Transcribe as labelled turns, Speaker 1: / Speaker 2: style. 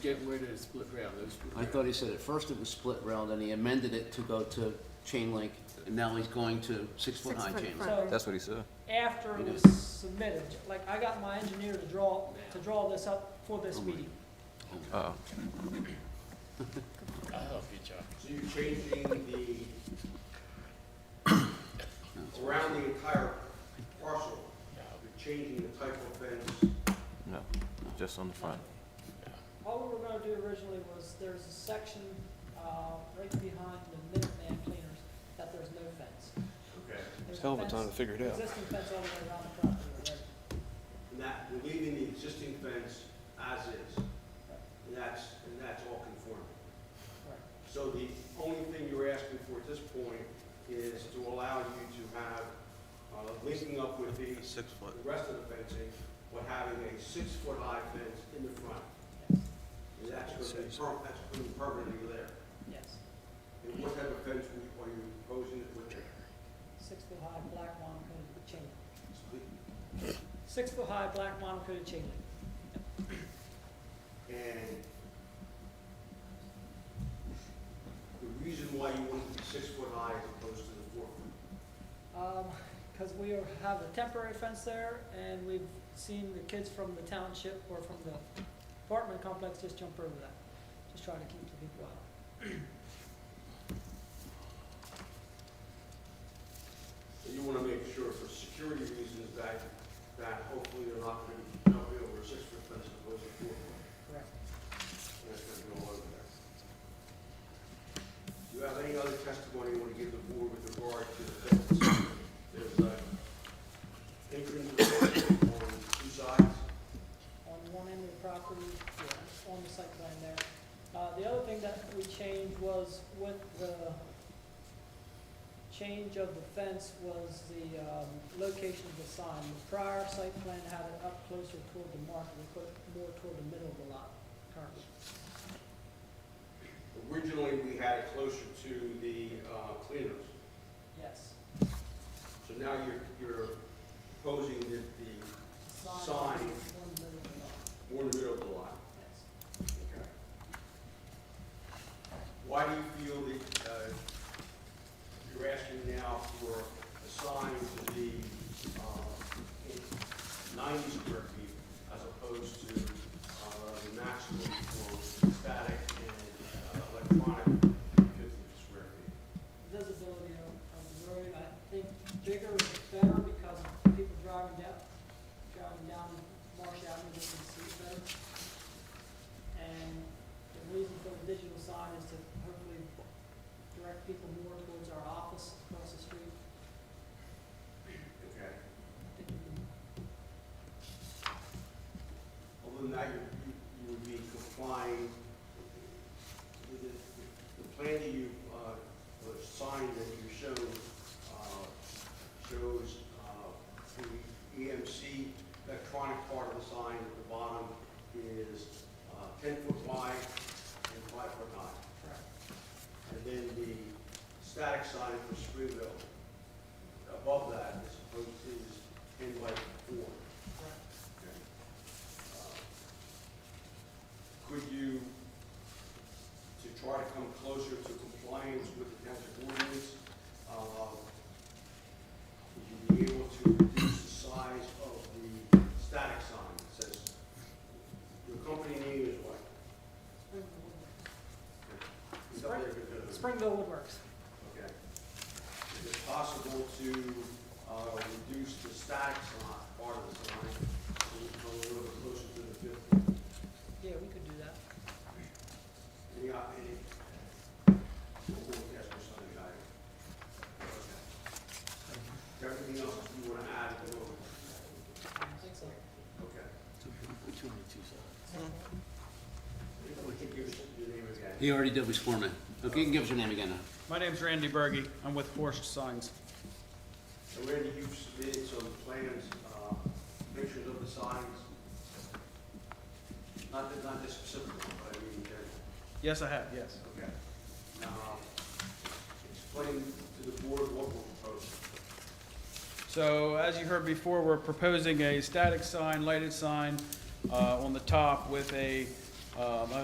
Speaker 1: getting rid of the split rail, those. split
Speaker 2: I
Speaker 1: rail.
Speaker 2: thought he said at first it was split rail, then he amended it to go to chain link, and now he's going to six-foot high
Speaker 3: Six-foot
Speaker 2: chain link.
Speaker 3: front.
Speaker 4: So
Speaker 5: That's what he said.
Speaker 4: after it was submitted, like I got my engineer to draw, to draw this up for this meeting.
Speaker 5: Uh,
Speaker 6: So you're changing the, around the entire parcel, you're changing the type of fence.
Speaker 5: no, just on the front.
Speaker 4: All we were gonna do originally was, there's a section, uh, right behind the Minuteman Cleaners, that there's no fence.
Speaker 6: Okay.
Speaker 4: There's a
Speaker 5: Hell of a
Speaker 4: fence-
Speaker 5: time to figure it out.
Speaker 4: Existing fence all the way around the property already.
Speaker 6: And that, we're leaving the existing fence as is. And that's, and that's all conforming.
Speaker 4: Correct.
Speaker 6: So the only thing you're asking for at this point is to allow you to have, uh, linking up with the. Six foot. The rest of the fencing, but having a six-foot high fence in the front.
Speaker 4: Yes.
Speaker 6: And that's gonna be, per- that's gonna be permanently there.
Speaker 4: Yes,
Speaker 6: And what type of fence are you proposing it with?
Speaker 4: six foot high, black monocoated chain link.
Speaker 6: And
Speaker 4: Six foot high, black monocoated chain link.
Speaker 6: the reason why you want it to be six foot high as opposed to the four foot?
Speaker 4: Because Um, we are- have a temporary fence there, and we've seen the kids from the township or from the apartment complex just jump over that, just trying to keep the people out.
Speaker 6: So you wanna make sure for security reasons that, that hopefully they're not gonna be jumping over a six foot fence as opposed to four foot.
Speaker 4: Correct.
Speaker 6: And that's gonna be all over there. Do you have any other testimony you wanna give the board with regard to the fence? There's a apron on two sides.
Speaker 4: On one end of the property, yeah, on the site plan there. Uh, The other thing that we changed was with the change of the fence was the um, location of the sign. The prior site plan had it up closer toward the market, we put it more toward the middle of the lot currently.
Speaker 6: Originally, we had it closer to the uh, cleaners,
Speaker 4: Yes.
Speaker 6: so now you're, you're proposing that the,
Speaker 4: One
Speaker 6: Sign.
Speaker 4: little bit off,
Speaker 6: more in the middle of the lot.
Speaker 4: yes.
Speaker 6: Okay. Why do you feel that, uh, you're asking now for a sign to be, uh, ninety square feet as opposed to, uh, the maximum for static and uh, electronic fifty square feet?
Speaker 4: Visibility of of the road, I think bigger is better because people driving down, driving down Marsh Avenue, they can see it better. And the reason for the digital sign is to hopefully direct people more towards our office across the street.
Speaker 6: Okay.
Speaker 4: I think we can
Speaker 6: Other than that, you, you- you would be complying with the, the plan that you, uh, the sign that you showed, uh, shows, uh, the EMC electronic part of the sign at the bottom is, uh, ten foot wide and five foot high.
Speaker 4: track.
Speaker 6: And then the static sign for Springville, above that is supposed to is ten by four. Uh, Could you, to try to come closer to compliance with the township ordinance, uh, would you be able to reduce the size of the static sign that says, your company name is what?
Speaker 4: Springville Woodworks.
Speaker 6: It's up there because of-
Speaker 4: Springville Woodworks.
Speaker 6: Okay. Is it possible to uh, reduce the static sign, part of the sign, to come a little bit closer to the fifth?
Speaker 4: Yeah, we could do that.
Speaker 6: Any, uh, any? we'll- we'll ask for something, I- okay. Everything else you want to add, we'll-
Speaker 4: I think so.
Speaker 6: okay.
Speaker 2: Two on two sides.
Speaker 6: If we can give us your name again.
Speaker 2: He already did, we sworn in. Okay, you can give us your name again now.
Speaker 7: My name's Randy Bergy. I'm with Horst Signs.
Speaker 6: So Randy, you've submitted some plans, uh, pictures of the signs. Not, the- not this specific one, but I mean, in general.
Speaker 7: Yes, I have, yes.
Speaker 6: Okay. Now, explain to the board what we're proposing.
Speaker 7: So as you heard before, we're proposing a static sign, lighted sign uh, on the top with a, um, a